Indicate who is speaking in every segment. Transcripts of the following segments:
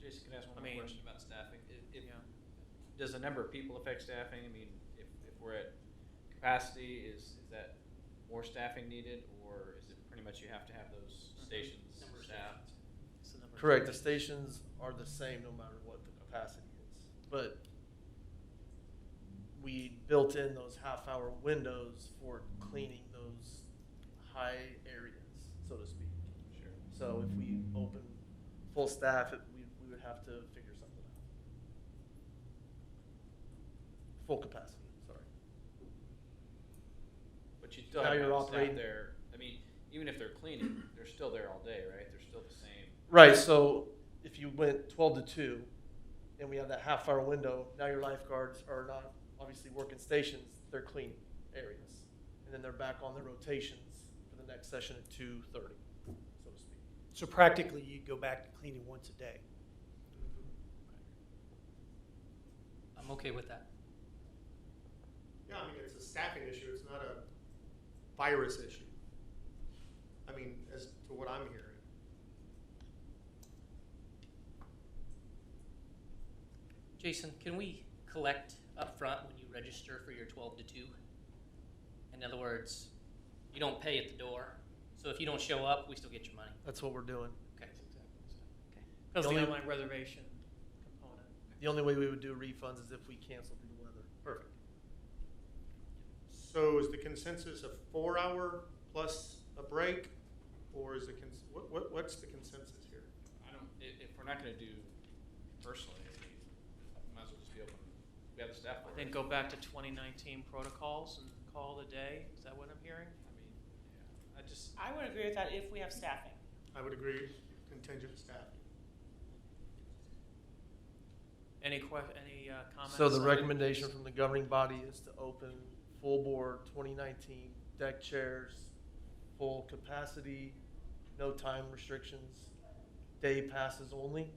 Speaker 1: Jason can ask
Speaker 2: I
Speaker 1: one more
Speaker 2: mean,
Speaker 1: question about staffing. I- If,
Speaker 2: yeah.
Speaker 1: does the number of people affect staffing? I mean, if, if we're at capacity, is, is that more staffing needed? Or is it pretty much you have to have those
Speaker 2: Mhm.
Speaker 1: stations
Speaker 3: Number of
Speaker 1: staffed?
Speaker 2: It's the number of
Speaker 4: Correct, the
Speaker 2: stations.
Speaker 4: stations are the same no matter what the capacity is, but we built in those half-hour windows for cleaning those high areas, so to speak.
Speaker 1: Sure.
Speaker 4: So if we open full staff, it, we, we would have to figure something out. Full capacity, sorry.
Speaker 1: But you still
Speaker 4: Now
Speaker 1: have
Speaker 4: you're
Speaker 1: people staff
Speaker 4: operating-
Speaker 1: there. I mean, even if they're cleaning, they're still there all day, right? They're still the same.
Speaker 4: Right, so if you went twelve to two, and we have that half hour window, now your lifeguards are not obviously working stations, they're cleaning areas. And then they're back on their rotations for the next session at two thirty, so to speak.
Speaker 5: So practically, you'd go back to cleaning once a day.
Speaker 2: I'm okay with that.
Speaker 6: Yeah, I mean, it's a staffing issue, it's not a virus issue. I mean, as to what I'm hearing.
Speaker 2: Jason, can we collect up front when you register for your twelve to two? In other words, you don't pay at the door, so if you don't show up, we still get your money.
Speaker 4: That's what we're doing.
Speaker 2: Okay.
Speaker 4: The
Speaker 7: Because the
Speaker 4: only-
Speaker 7: online reservation component.
Speaker 4: The only way we would do refunds is if we canceled due to weather. Perfect.
Speaker 6: So is the consensus a four hour plus a break? Or is the cons- what, what, what's the consensus here?
Speaker 1: I don't, if, if we're not gonna do personally, we might as well just be open. We have the staff.
Speaker 7: But
Speaker 1: already.
Speaker 7: Then go back to 2019 protocols and call it a day. Is that what I'm hearing?
Speaker 1: I mean, yeah, I just,
Speaker 8: I would agree with that if we have staffing.
Speaker 6: I would agree contingent staff.
Speaker 7: Any que, any uh, comments?
Speaker 4: So the
Speaker 7: on-
Speaker 4: recommendation from the governing body is to open full board twenty nineteen, deck chairs, full capacity, no time restrictions, day passes only.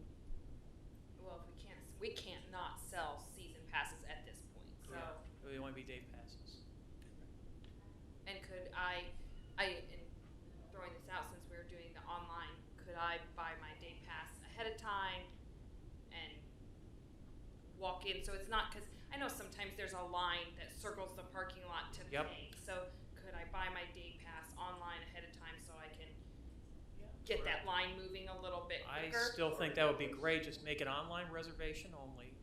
Speaker 9: Well, if we can't, we can't not sell season passes at this point, so.
Speaker 7: Yeah. It would only be day passes.
Speaker 9: And could I, I, and throwing this out since we were doing the online, could I buy my day pass ahead of time and walk in? So it's not, cause I know sometimes there's a line that circles the parking lot to
Speaker 7: Yep.
Speaker 9: pay. So could I buy my day pass online ahead of time so I can
Speaker 7: Yeah.
Speaker 9: get that line moving a little bit
Speaker 7: I
Speaker 9: quicker?
Speaker 7: still think that would be great. Just make it online reservation only.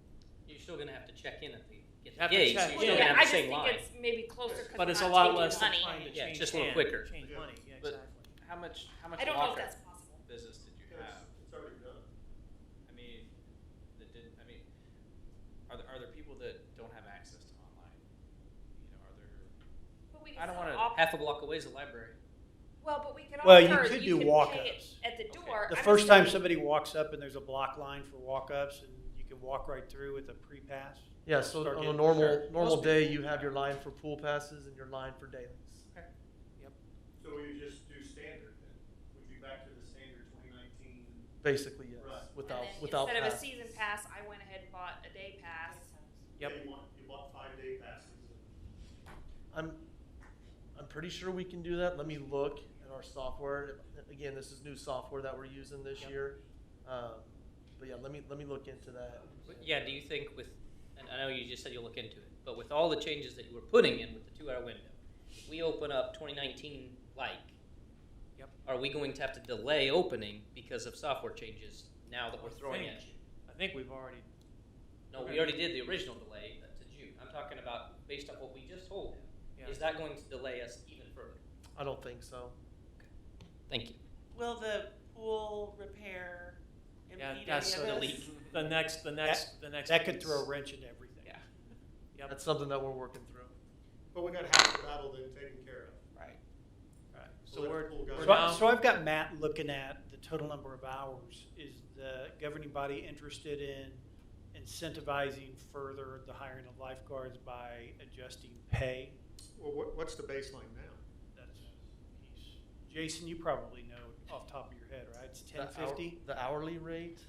Speaker 2: You're still gonna have to check in at the, get
Speaker 7: Have to
Speaker 2: the gate, so
Speaker 7: check in.
Speaker 2: you're still gonna
Speaker 9: yeah,
Speaker 2: have the
Speaker 9: I just
Speaker 2: same
Speaker 9: think
Speaker 2: line.
Speaker 9: it's maybe closer because
Speaker 7: But it's a
Speaker 9: not
Speaker 7: lot
Speaker 9: taking
Speaker 7: less than
Speaker 9: money.
Speaker 7: trying to
Speaker 2: Yeah,
Speaker 7: change
Speaker 2: just a little
Speaker 7: hand-
Speaker 2: quicker.
Speaker 7: Change
Speaker 6: Yeah.
Speaker 7: money, yeah,
Speaker 1: But-
Speaker 7: exactly.
Speaker 1: how much, how much
Speaker 9: I don't know if
Speaker 1: locker
Speaker 9: that's possible.
Speaker 1: business did you have?
Speaker 6: It's already done.
Speaker 1: I mean, that didn't, I mean, are there, are there people that don't have access to online? You know, are there,
Speaker 9: But we
Speaker 1: I
Speaker 9: can
Speaker 1: don't
Speaker 9: still
Speaker 1: wanna-
Speaker 9: offer-
Speaker 2: Half a block away is the library.
Speaker 9: Well, but we could
Speaker 5: Well, you
Speaker 9: offer,
Speaker 5: could
Speaker 9: you
Speaker 5: do
Speaker 9: can pay it
Speaker 5: walk-ups.
Speaker 9: at the
Speaker 1: Okay.
Speaker 9: door.
Speaker 5: The
Speaker 9: I'm
Speaker 5: first
Speaker 9: just
Speaker 5: time
Speaker 9: saying-
Speaker 5: somebody walks up and there's a block line for walk-ups and you can walk right through with a pre-pass.
Speaker 4: Yeah, so
Speaker 5: Start
Speaker 4: on a
Speaker 5: getting-
Speaker 4: normal,
Speaker 1: Sure.
Speaker 4: normal
Speaker 1: Most
Speaker 4: day, you have your line for pool passes and your line for dailies.
Speaker 6: So we just do standard then? We do back to the standard twenty nineteen?
Speaker 4: Basically, yes,
Speaker 6: Right.
Speaker 9: and
Speaker 4: without,
Speaker 9: then
Speaker 4: without
Speaker 9: Instead of a
Speaker 4: pass.
Speaker 9: season pass, I went ahead and bought a day pass.
Speaker 7: Yep.
Speaker 6: You want, you want five day passes.
Speaker 4: I'm, I'm pretty sure we can do that. Let me look at our software. Again, this is new software that we're using this
Speaker 7: Yep.
Speaker 4: year. Um, but yeah, let me, let me look into that.
Speaker 2: But Yeah, do you think with, and I know you just said you'll look into it, but with all the changes that you were putting in with the two hour window, if we open up twenty nineteen like,
Speaker 7: Yep.
Speaker 2: are we going to have to delay opening because of software changes now that we're throwing at you?
Speaker 7: I think we've already,
Speaker 2: No, we already did the original delay to June. I'm talking about based on what we just told him.
Speaker 7: yeah.
Speaker 2: Is that going to delay us even further?
Speaker 4: I don't think so.
Speaker 2: Thank you.
Speaker 8: Will the pool repair
Speaker 7: Yeah,
Speaker 8: impede any of
Speaker 7: that's
Speaker 2: the
Speaker 7: uh,
Speaker 8: this?
Speaker 2: leak.
Speaker 7: the next, the next, the next.
Speaker 5: That could
Speaker 7: piece.
Speaker 5: throw a wrench into everything.
Speaker 7: Yeah. Yep.
Speaker 4: That's something that we're working through.
Speaker 6: But we got half the battle then taken care of.
Speaker 7: Right. Right.
Speaker 6: So
Speaker 7: So we're,
Speaker 6: Liverpool got-
Speaker 7: we're
Speaker 5: So, I-
Speaker 7: now,
Speaker 5: so I've got Matt looking at the total number of hours. Is the governing body interested in incentivizing further the hiring of lifeguards by adjusting pay?
Speaker 6: Well, what, what's the baseline now?
Speaker 5: That's, he's, Jason, you probably know off the top of your head, right? It's
Speaker 4: The hour-
Speaker 5: ten fifty?
Speaker 4: The hourly rate?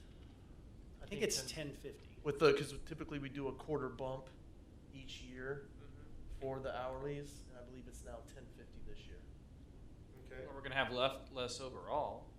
Speaker 5: I think it's
Speaker 4: 10
Speaker 5: ten fifty.
Speaker 4: With the, because typically we do a quarter bump each year
Speaker 5: Mm-hmm.
Speaker 4: for the hourlies, and I believe it's now ten fifty this year.
Speaker 6: Okay.
Speaker 1: well, we're gonna have left, less overall.